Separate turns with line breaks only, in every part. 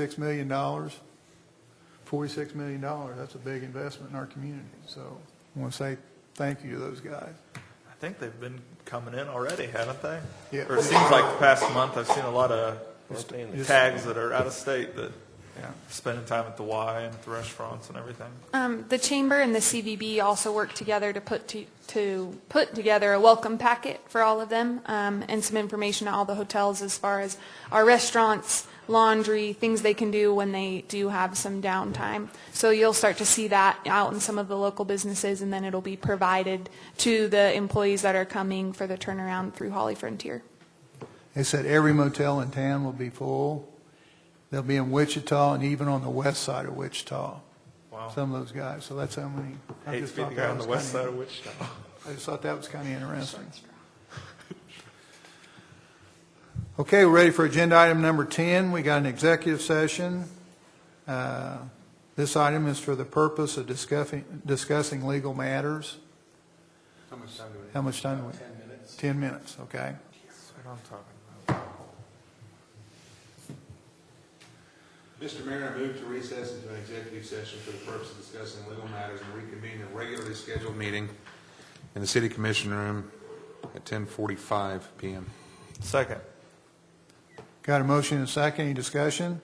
Six million dollars, forty-six million dollars, that's a big investment in our community. So I want to say thank you to those guys.
I think they've been coming in already, haven't they?
Yeah.
Or it seems like the past month, I've seen a lot of tags that are out of state that,
Yeah.
spending time at the Y and at the restaurants and everything.
Um, The chamber and the CVB also work together to put, to- to put together a welcome packet for all of them um, and some information to all the hotels as far as our restaurants, laundry, things they can do when they do have some downtime. So you'll start to see that out in some of the local businesses, and then it'll be provided to the employees that are coming for the turnaround through Holly Frontier.
They said every motel in town will be full. They'll be in Wichita and even on the west side of Wichita,
Wow.
some of those guys. So that's how many. I
Hate
just
to be the
thought
guy
that
on the
was
west
kinda-
side of Wichita.
I just thought that was kind of interesting. Okay, we're ready for agenda item number 10. We got an executive session. Uh, This item is for the purpose of discussing, discussing legal matters. How much time do we? How much time do we? 10 minutes. 10 minutes, okay.
That's what I'm talking
Mr. Mayor, I move to recess into an executive session for the purpose of discussing legal matters and reconvene the regularly scheduled meeting in the city commission room at 10:45 PM.
about. Second.
Got a motion and a second, any discussion?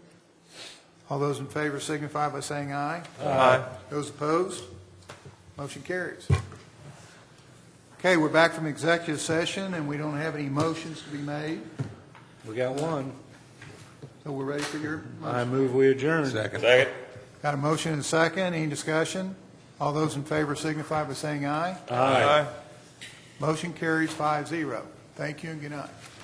All those in favor signify by saying aye.
Aye.
Those opposed? Motion carries. Okay, we're back from executive session, and we don't have any motions to be made,
We got one.
so we're ready for your
I
motion.
move we adjourn.
Second.
Got a motion and a second, any discussion? All those in favor signify by saying aye.
Aye.
Motion carries five zero. Thank you and good night.